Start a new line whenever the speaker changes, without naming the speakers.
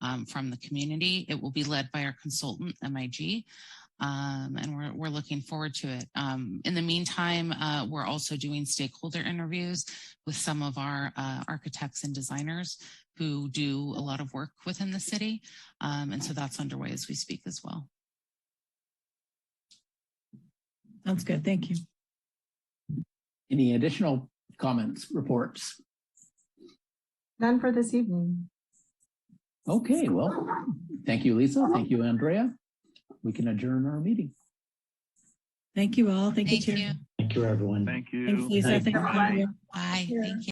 um, from the community. It will be led by our consultant, MIG. Um, and we're, we're looking forward to it. Um, in the meantime, uh, we're also doing stakeholder interviews with some of our uh, architects and designers who do a lot of work within the city. Um, and so that's underway as we speak as well.
Sounds good. Thank you.
Any additional comments, reports?
None for this evening.
Okay, well, thank you, Lisa. Thank you, Andrea. We can adjourn our meeting.
Thank you all. Thank you,
Thank
Chair.
you.
Thank you, everyone.
Thank you.
Thanks, Lisa.
Thank
Thank you.
you.
Andrea.
Bye.
Sure.
Thank you.